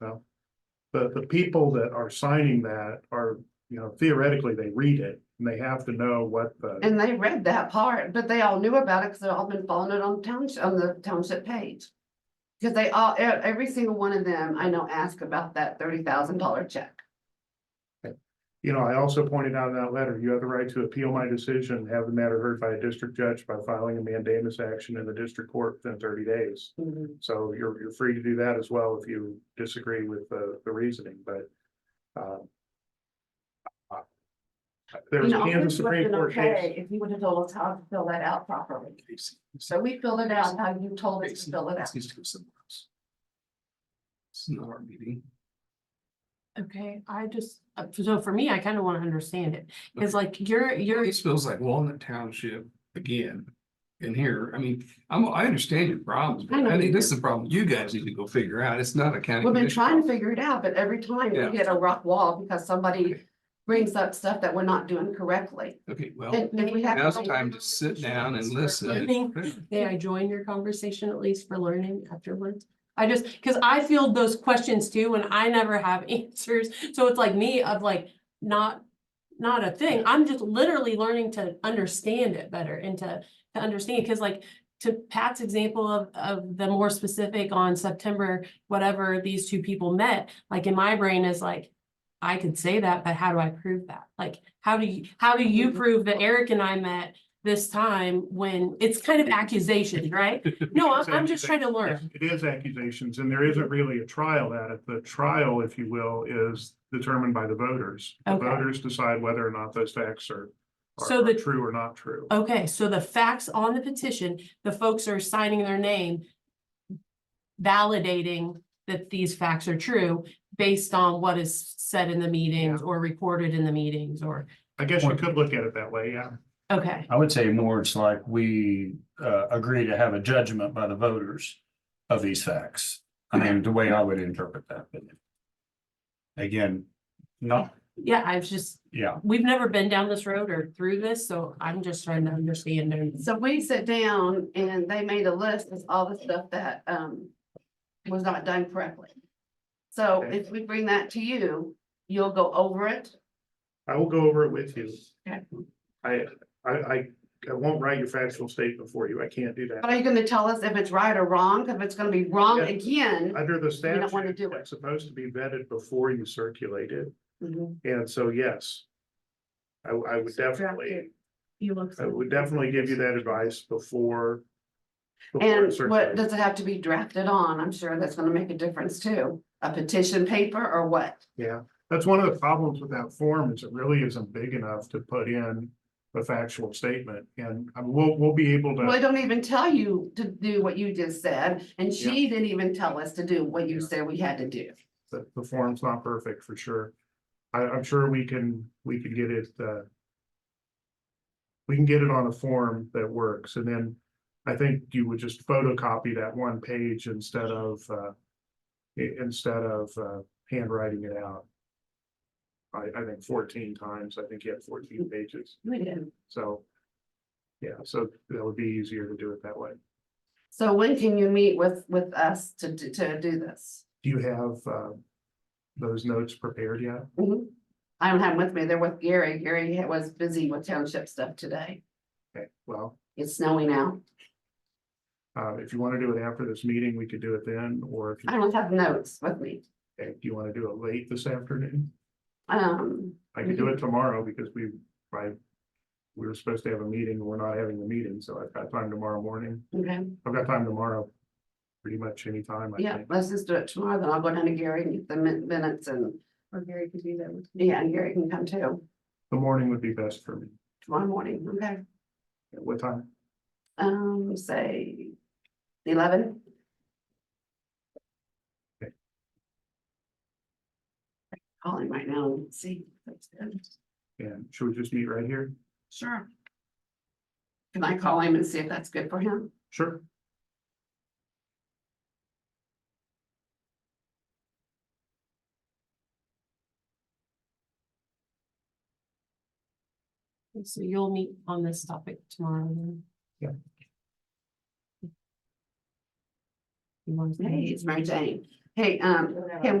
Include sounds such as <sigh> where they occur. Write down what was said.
No. The, the people that are signing that are, you know, theoretically, they read it and they have to know what the, And they read that part, but they all knew about it because they've all been following it on township, on the township page. Because they all, e- every single one of them, I know, asked about that thirty thousand dollar check. you know, I also pointed out in that letter, you have the right to appeal my decision, have the matter heard by a district judge by filing a mandamus action in the district court within thirty days. Mm-hmm. So you're, you're free to do that as well if you disagree with the, the reasoning, but, um. uh, There was You a know, it Kansas would've Supreme been Court okay case. If you would have told us how to fill that out properly. So we filled it out how you told us to fill it out. Needs to go somewhere else. It's not our meeting. Okay, I just, uh, so for me, I kind of want to understand it. It's like you're, you're, It feels like Walnut Township again. In here, I mean, I'm, I understand your problems, I but know I you think this is do. the problem you guys need to go figure out. It's not a county. We've been commission trying to problem. figure it out, but every time Yeah. we hit a rock wall because somebody brings up stuff that we're not doing correctly. Okay, well, And and we have. now's the time to sit down and listen. learning. and- may I join your conversation at least for learning afterwards? I just, because I feel those questions too, and I never have <laughs> answers. So it's like me of like, not, not a thing. I'm just literally learning to understand it better and to, to understand. Because like, to Pat's example of, of the more specific on September, whatever these two people met, like in my brain is like, I could say that, but how do I prove that? Like, how do you, how do you Mhm. prove that Eric and I met this time when it's kind <laughs> of accusations, right? No, I'm, I'm just trying to learn. It is accusations, and there isn't really a trial at it. The trial, if you will, is determined by the voters. The Okay. voters decide whether or not those facts are, are So are the- true or not true. Okay, so the facts on the petition, the folks are signing their name. Validating that these facts are true based on what is said in the meetings or recorded in the meetings or, I guess you could look at it that way, yeah. okay. I would say more it's like we uh agree to have a judgment by the voters of these facts. I mean, the way I would interpret that. but Again, not, Yeah, I've just, yeah, we've never been down this road or through this, so I'm just trying to understand. and- So we sat down and they made a list of all the stuff that um was not done correctly. So Okay. if we bring that to you, you'll go over it. I will go over it with you. Okay. I, I, I, I won't write your factual statement for you. I can't do But that. are you gonna tell us if it's right or wrong? If it's gonna be wrong Yeah. again? Under the We don't wanna statute, do it. it's supposed to be vetted before you circulate it, Mhm. and so, yes. I, I would definitely. You look. I would definitely give you that advice before. before And it what circulates. does it have to be drafted on? I'm sure that's gonna make a difference too. A petition paper or what? Yeah, that's one of the problems with that form is it really isn't big enough to put in a factual statement and I mean, we'll, we'll be able Well, I to. don't even tell you to do what you just said, and Yeah. she didn't even tell us to do what you Yeah. said we had to do. The, the form's not perfect for sure. I, I'm sure we can, we can get it, uh. We can get it on a form that works and then I think you would just photocopy that one page instead of, uh. i- instead of, uh, handwriting it out. I, I think fourteen times, I think you had fourteen pages. We did. So. Yeah, so that would be easier to do it that way. So when can you meet with, with us to, do- to do this? Do you have, uh, those notes prepared yet? Mm-hmm. I don't have them with me. They're with Gary. Gary ha- was busy with township stuff today. Okay, well, It's snowing out. uh, if you want to do it after this meeting, we could do it then, or if you, I don't have notes with me. if you want to do it late this afternoon, Um, I could do it tomorrow because we, I. We were supposed to have a meeting, we're not having the meeting, so I've got time tomorrow morning. okay, I've got time tomorrow. Pretty much any time. I yeah, think. let's just do it tomorrow, then I'll go down to Gary and get the min- minutes and. Or Gary could do that with. Yeah, and Gary can come too, The morning would be best for me. tomorrow morning, okay, At What time? um, say eleven? Okay. Calling right now, and see. if it's good. And should we just meet right here? Sure. Can I call him and see if that's good for him? Sure. So you'll meet on this topic tomorrow then? Yeah. You want to- Hey, it's Mary Jane. Hey, um, can